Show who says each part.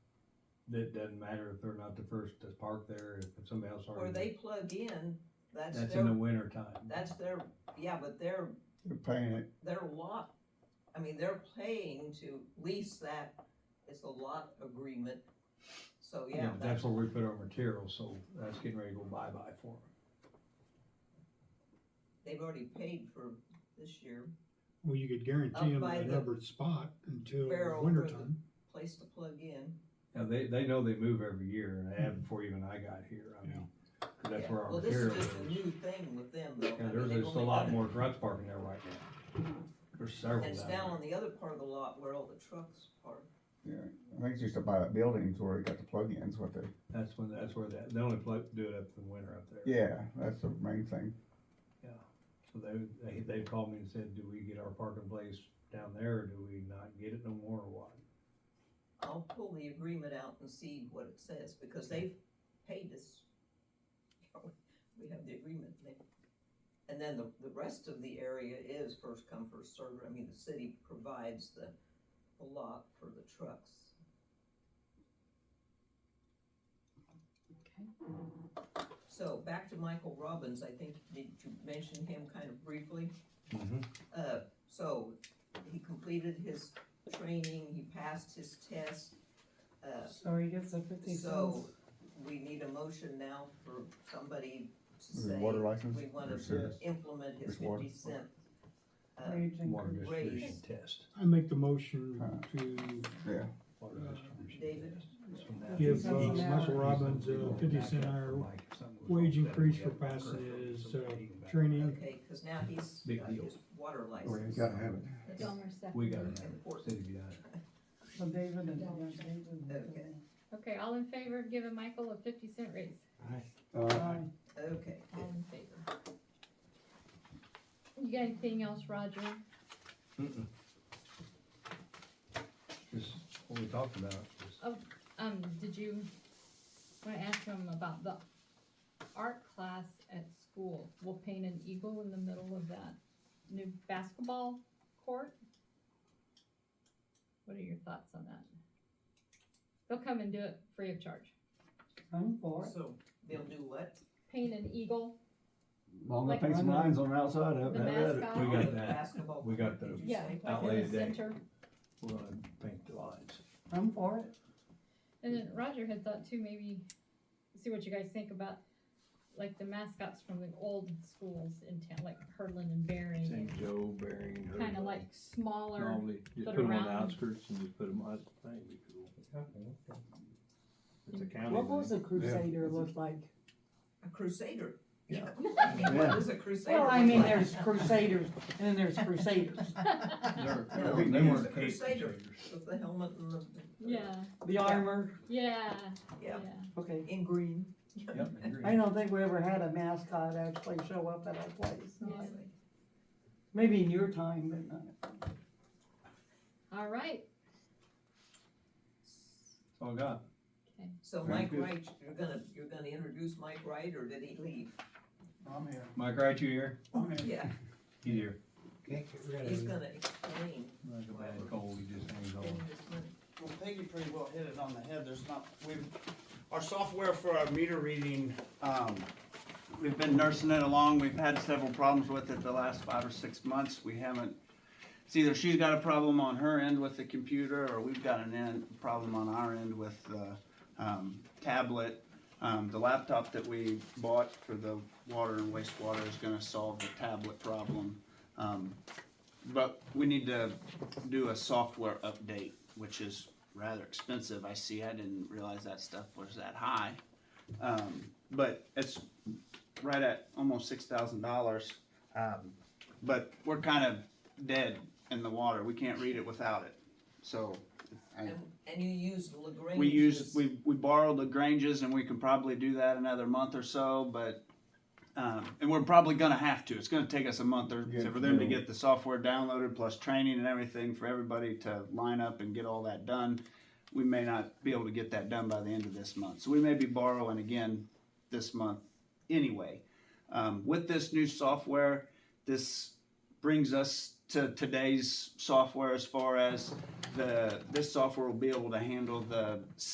Speaker 1: It doesn't matter if they're not the first to park there, if if somebody else
Speaker 2: Or
Speaker 1: already.
Speaker 2: they plug in, that's
Speaker 1: That's in the
Speaker 2: their,
Speaker 1: winter time.
Speaker 2: that's their, yeah, but they're,
Speaker 3: They're paying it.
Speaker 2: their lot, I mean, they're paying to lease that, it's a lot agreement. So,
Speaker 1: Yeah,
Speaker 2: yeah,
Speaker 1: but
Speaker 2: that's,
Speaker 1: that's where we put our material, so that's getting ready to go bye-bye for them.
Speaker 2: they've already paid for this year,
Speaker 4: Well, you could guarantee
Speaker 2: Up
Speaker 4: them
Speaker 2: by
Speaker 4: a
Speaker 2: the
Speaker 4: numbered spot until
Speaker 2: barrel
Speaker 4: winter
Speaker 2: for the-
Speaker 4: time.
Speaker 2: place to plug in.
Speaker 1: Now, they, they know they move every year, and they have before even I got here, I mean, 'cause that's
Speaker 2: Hmm. Yeah.
Speaker 1: where our
Speaker 2: Well, this is
Speaker 1: material is.
Speaker 2: just a new thing with them though. I
Speaker 1: Yeah,
Speaker 2: mean,
Speaker 1: there's
Speaker 2: they've
Speaker 1: just a
Speaker 2: only
Speaker 1: lot
Speaker 2: done it-
Speaker 1: more trucks parking there right now. There's several
Speaker 2: and It's
Speaker 1: down
Speaker 2: down
Speaker 1: there.
Speaker 2: on the other part of the lot where all the trucks are.
Speaker 3: Yeah, I think it's just about buildings where they got the plug-ins, what they,
Speaker 1: That's when, that's where that, they only pla- do it up in winter up there.
Speaker 3: yeah, that's the main thing.
Speaker 1: So they, they, they called me and said, do we get our parking place down there, or do we not get it no more, or what?
Speaker 2: I'll pull the agreement out and see what it says, because they've paid us. We have the agreement there. And then the, the rest of the area is first come, first served, I mean, the city provides the, the lot for the trucks.
Speaker 5: Okay.
Speaker 2: So back to Michael Robbins, I think, did you mention him kind of briefly?
Speaker 1: Mhm.
Speaker 2: Uh, so, he completed his training, he passed his test. Uh,
Speaker 5: So he gets a fifty
Speaker 2: So,
Speaker 5: cents.
Speaker 2: we need a motion now for somebody to
Speaker 3: Is it
Speaker 2: say,
Speaker 3: water license?
Speaker 2: we want
Speaker 3: Yes.
Speaker 2: to implement his
Speaker 3: It's water.
Speaker 2: fifty cent. uh,
Speaker 5: wage
Speaker 1: Water
Speaker 5: increase.
Speaker 1: distribution
Speaker 2: Raise.
Speaker 1: test.
Speaker 4: I make the motion
Speaker 3: Huh.
Speaker 4: to
Speaker 3: Yeah,
Speaker 1: Water
Speaker 4: Uh,
Speaker 1: distribution
Speaker 2: David?
Speaker 1: test. It's from that-
Speaker 4: give
Speaker 5: Fifty
Speaker 4: uh,
Speaker 5: cents an
Speaker 4: Michael
Speaker 5: hour.
Speaker 4: Robbins a fifty cent hour wage increase for passing his, uh, training.
Speaker 2: Okay, cause now he's
Speaker 1: Big
Speaker 2: got
Speaker 1: deal.
Speaker 2: his water
Speaker 3: well, Oh, you
Speaker 2: license.
Speaker 3: gotta have it.
Speaker 2: That's
Speaker 6: Elmer seconded.
Speaker 1: We gotta have
Speaker 6: it.
Speaker 1: it, city behind it.
Speaker 5: So David and.
Speaker 6: Yeah.
Speaker 2: Okay.
Speaker 6: Okay, all in favor of giving Michael a fifty cent raise?
Speaker 3: Uh,
Speaker 5: Aye.
Speaker 2: Okay,
Speaker 6: All in favor. You got anything else, Roger?
Speaker 1: Mm-mm. Just what we talked about, just,
Speaker 6: Um, did you want to ask him about the art class at school? We'll paint an eagle in the middle of that new basketball court. What are your thoughts on that? They'll come and do it free of charge.
Speaker 5: I'm for it.
Speaker 2: so they'll do what?
Speaker 6: Paint an eagle.
Speaker 7: Long as
Speaker 6: Like
Speaker 7: they paint some
Speaker 5: on the-
Speaker 7: lines on the outside of
Speaker 6: The
Speaker 7: it, have at it.
Speaker 6: mascot.
Speaker 1: We got
Speaker 2: The
Speaker 1: that.
Speaker 2: Basketball.
Speaker 1: We got
Speaker 2: court,
Speaker 1: the-
Speaker 2: did you
Speaker 6: Yeah,
Speaker 2: say?
Speaker 6: like
Speaker 1: Outlay
Speaker 6: in the
Speaker 1: today.
Speaker 6: center.
Speaker 1: we're gonna paint the lines.
Speaker 5: I'm for it.
Speaker 6: And then Roger had thought too, maybe, see what you guys think about, like the mascots from the old schools in town, like Hurlin and Barry.
Speaker 7: St. Joe, Bering.
Speaker 6: Kind of like smaller,
Speaker 7: Normally, you put
Speaker 6: put
Speaker 7: them on
Speaker 6: around.
Speaker 7: the outskirts and you put them, I think it'd be cool. It's a county
Speaker 5: What was
Speaker 7: thing.
Speaker 5: a crusader
Speaker 7: Yeah.
Speaker 5: look like?
Speaker 2: A crusader.
Speaker 7: Yeah.
Speaker 2: What is a crusader?
Speaker 5: Well, I mean,
Speaker 2: look like?
Speaker 5: there's crusaders and then there's crusaders.
Speaker 1: They're-
Speaker 2: No,
Speaker 1: they
Speaker 2: there's
Speaker 1: weren't
Speaker 2: the
Speaker 1: paint
Speaker 2: Crusader.
Speaker 1: crusaders.
Speaker 2: With the helmet and the.
Speaker 6: yeah,
Speaker 5: The armor,
Speaker 6: yeah,
Speaker 2: Yeah,
Speaker 6: yeah.
Speaker 5: okay.
Speaker 2: in green.
Speaker 1: Yep, I agree.
Speaker 5: I don't think we ever had a mascot actually show up at our place.
Speaker 6: Yeah.
Speaker 5: Maybe in your time, but not.
Speaker 6: All right,
Speaker 1: That's all I got.
Speaker 6: okay.
Speaker 2: So Mike
Speaker 3: Thank you.
Speaker 2: Wright, you're gonna, you're gonna introduce Mike Wright, or did he leave?
Speaker 3: I'm here,
Speaker 1: Mike, right, you here?
Speaker 3: I'm
Speaker 2: Yeah,
Speaker 1: He's here.
Speaker 2: he's gonna explain
Speaker 1: Like a bad cold, he just hangs
Speaker 8: Oh.
Speaker 2: in
Speaker 1: on.
Speaker 2: just a minute.
Speaker 8: Well, Peggy pretty well hit it on the head, there's not, we, our software for our meter reading, um, we've been nursing it along, we've had several problems with it the last five or six months, we haven't, it's either she's got a problem on her end with the computer, or we've got an end, problem on our end with the, um, tablet. Um, the laptop that we bought for the water and wastewater is gonna solve the tablet problem. Um, but we need to do a software update, which is rather expensive. I see, I didn't realize that stuff was that high. Um, but it's right at almost six thousand dollars. Um, but we're kind of dead in the water. We can't read it without it. So I,
Speaker 2: And, and you used Lagrange's.
Speaker 8: we used, we, we borrowed Lagrange's and we can probably do that another month or so, but, um, and we're probably gonna have to. It's gonna take us a month or,
Speaker 3: Yeah,
Speaker 8: for them to
Speaker 3: yeah.
Speaker 8: get the software downloaded plus training and everything for everybody to line up and get all that done. We may not be able to get that done by the end of this month. So we may be borrowing again this month anyway. Um, with this new software, this brings us to today's software as far as the, this software will be able to handle the